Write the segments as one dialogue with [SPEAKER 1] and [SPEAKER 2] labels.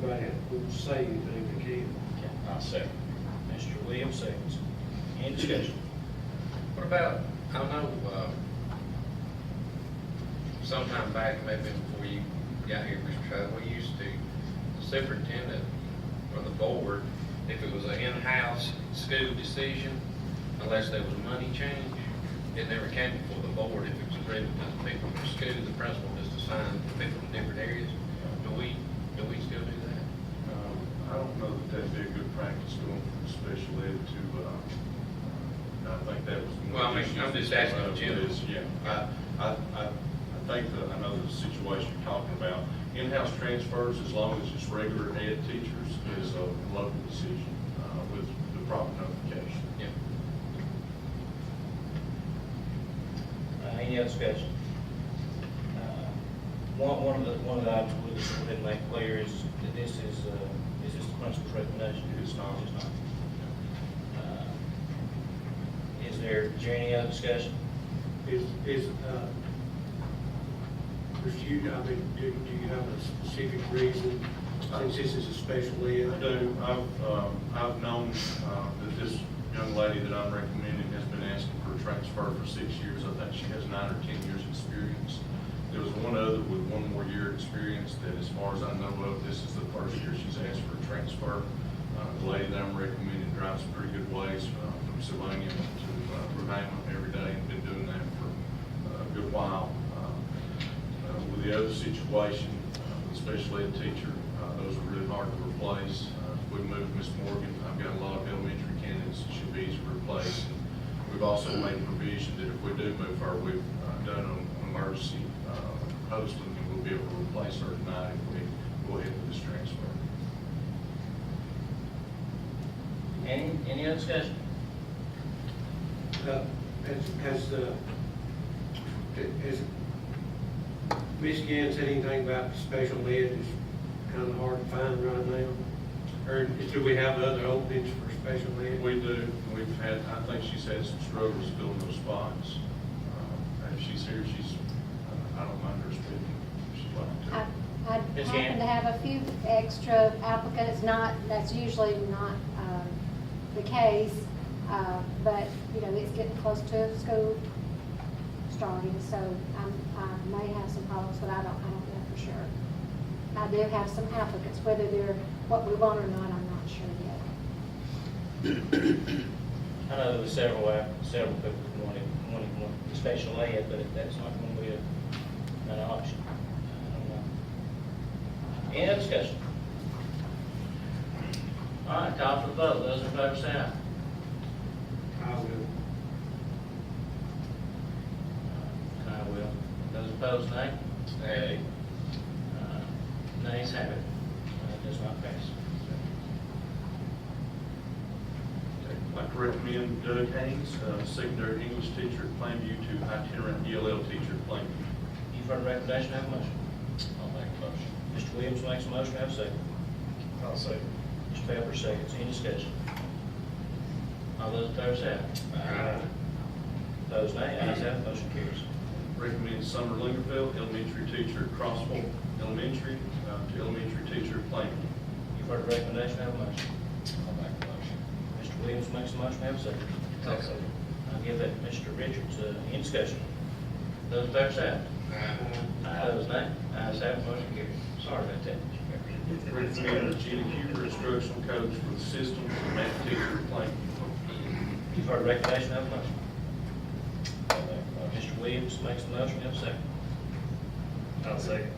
[SPEAKER 1] grant, we'll save anything we can.
[SPEAKER 2] Okay, I second. Mr. Williams seconds. Any discussion?
[SPEAKER 3] What about, I know, uh, sometime back, maybe before you got here, Mr. Trout, we used to, the superintendent or the board, if it was an in-house school decision, unless there was a money change, it never came before the board if it was agreed with the people from the school, the principal just assigned the people from different areas. Do we, do we still do that?
[SPEAKER 4] Um, I don't know that that'd be a good practice going from special ed to, uh, I think that was. one
[SPEAKER 3] Well, I
[SPEAKER 4] of the
[SPEAKER 3] mean, I'm
[SPEAKER 4] issues
[SPEAKER 3] just asking
[SPEAKER 4] that
[SPEAKER 3] in general.
[SPEAKER 4] was, Yeah, I, I, I, I think that, I know the situation you're talking about, in-house transfers, as long as it's regular ed teachers, is a local decision, uh, with the proper notification.
[SPEAKER 3] Yeah.
[SPEAKER 2] Uh, Any other discussion? Uh, One, one of the, one of the items we just wanted to make clear is that this is, uh, is this the principal's recommendation?
[SPEAKER 4] It's not.
[SPEAKER 2] It's not. Uh, Is there, is there any other discussion?
[SPEAKER 1] Is, is, uh, is you, I mean, do, do you have a specific reason, since this is a special ed?
[SPEAKER 4] I do, I've, um, I've known, uh, that this young lady that I'm recommending has been asking for a transfer for six years. I think she has nine or ten years' experience. There was one other with one more year experience that, as far as I know of, this is the first year she's asked for a transfer. Uh, the lady that I'm recommending drives a pretty good ways, uh, from Sylvania to, uh, Roehampton every day, and been doing that for uh, a good while. Uh, uh, With the other situation, uh, the special ed teacher, uh, those are really hard to replace. Uh, if We moved Miss Morgan, I've got a lot of elementary candidates that should be easy to replace. And We've also made provision that if we do move her, we've uh, done an emergency uh, posting, and we'll be able to replace her tonight if we go ahead with this transfer.
[SPEAKER 2] Any, any other discussion?
[SPEAKER 1] Uh, Has, has, uh, has Ms. Gann said anything about special ed is kind of hard to find right now? Or do we have other openings for special ed?
[SPEAKER 4] We do, we've had, I think she's had some struggles filling those spots. Uh, If she's here, she's, uh, I don't mind her speaking, if she'd like to.
[SPEAKER 5] I I
[SPEAKER 2] Ms. Gann?
[SPEAKER 5] happen to have a few extra applicants, not, that's usually not um, the case, uh, but, you know, it's getting close to school starting, so I'm- I may have some problems, but I don't, I don't know for sure. I do have some applicants, whether they're what we want or not, I'm not sure yet.
[SPEAKER 2] I know there were several, out- several people who wanted, wanted more special ed, but that's not going to be a- an option. I don't know. Any other discussion? All right, call for the vote. Those in favor say aye.
[SPEAKER 1] I will.
[SPEAKER 2] I will. Uh, Those opposed, nay?
[SPEAKER 3] Hey.
[SPEAKER 2] Uh, Nays have it. Uh, Does not pass.
[SPEAKER 4] I'd like to recommend Doug Haynes, uh, secondary English teacher at Plainview to itinerant ELL teacher at Plainview.
[SPEAKER 2] You've heard the recommendation, have a motion.
[SPEAKER 3] I'll make a motion.
[SPEAKER 2] Mr. Williams makes a motion, have a second.
[SPEAKER 3] I'll second.
[SPEAKER 2] Mr. Pepper seconds, any discussion? All those in favor say aye.
[SPEAKER 3] Aye.
[SPEAKER 2] Opposed, nay? Ayes have, it, motion carries.
[SPEAKER 4] Recommend Summer Lingerfeld, elementary teacher at Crossville Elementary uh, to elementary teacher at Plainview.
[SPEAKER 2] You've heard the recommendation, have a motion.
[SPEAKER 3] I'll make a motion.
[SPEAKER 2] Mr. Williams makes a motion, have a second.
[SPEAKER 3] I'll second.
[SPEAKER 2] I'll give that to Mr. Richards, uh, any discussion? Those in favor say
[SPEAKER 1] Uh,
[SPEAKER 2] aye. Aye. Those nay? Ayes have, it, motion carries. Sorry about that, Mr. Pepper.
[SPEAKER 4] Recommend Regina Huber, instructional coach for the systems and math teacher at Plainview.
[SPEAKER 2] You've heard the recommendation, have a motion.
[SPEAKER 3] I'll make a motion.
[SPEAKER 2] Mr. Williams makes a motion, have a second.
[SPEAKER 3] I'll second.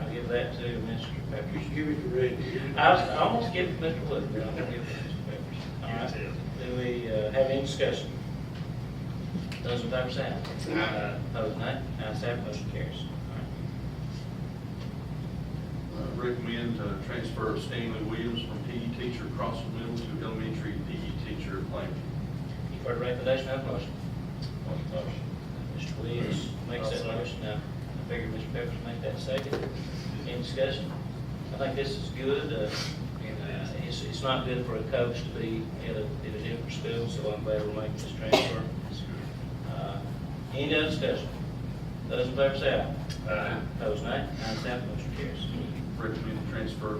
[SPEAKER 2] I'll give that to Mr. Pepper.
[SPEAKER 1] You should give it to Reggie.
[SPEAKER 2] I was, I almost give it to Mr. Wood, but I'm gonna give it to Mr. Pepperidge. All right. Do we uh, have any discussion? Those in favor say aye.
[SPEAKER 3] Aye.
[SPEAKER 2] Opposed, nay. Ayes have, it, motion carries. All
[SPEAKER 4] Uh, Recommend uh, transfer of Stanley Williams from PE teacher at Crossville Middle to elementary PE teacher at Plainview.
[SPEAKER 2] right. You've heard the recommendation, have a motion.
[SPEAKER 3] I'll make a motion.
[SPEAKER 2] Mr. Williams makes
[SPEAKER 3] I'll
[SPEAKER 2] that
[SPEAKER 3] second.
[SPEAKER 2] motion, now, I figure Mr. Pepperidge make that second. Any discussion? I think this is good, uh, and uh, it's, it's not good for a coach to be at a, at a different school, so I'm glad we're making this transfer. Uh, Any other discussion? Those in favor say aye. Aye. Those nay, ayes have, it, motion carries.
[SPEAKER 4] Recommend transfer of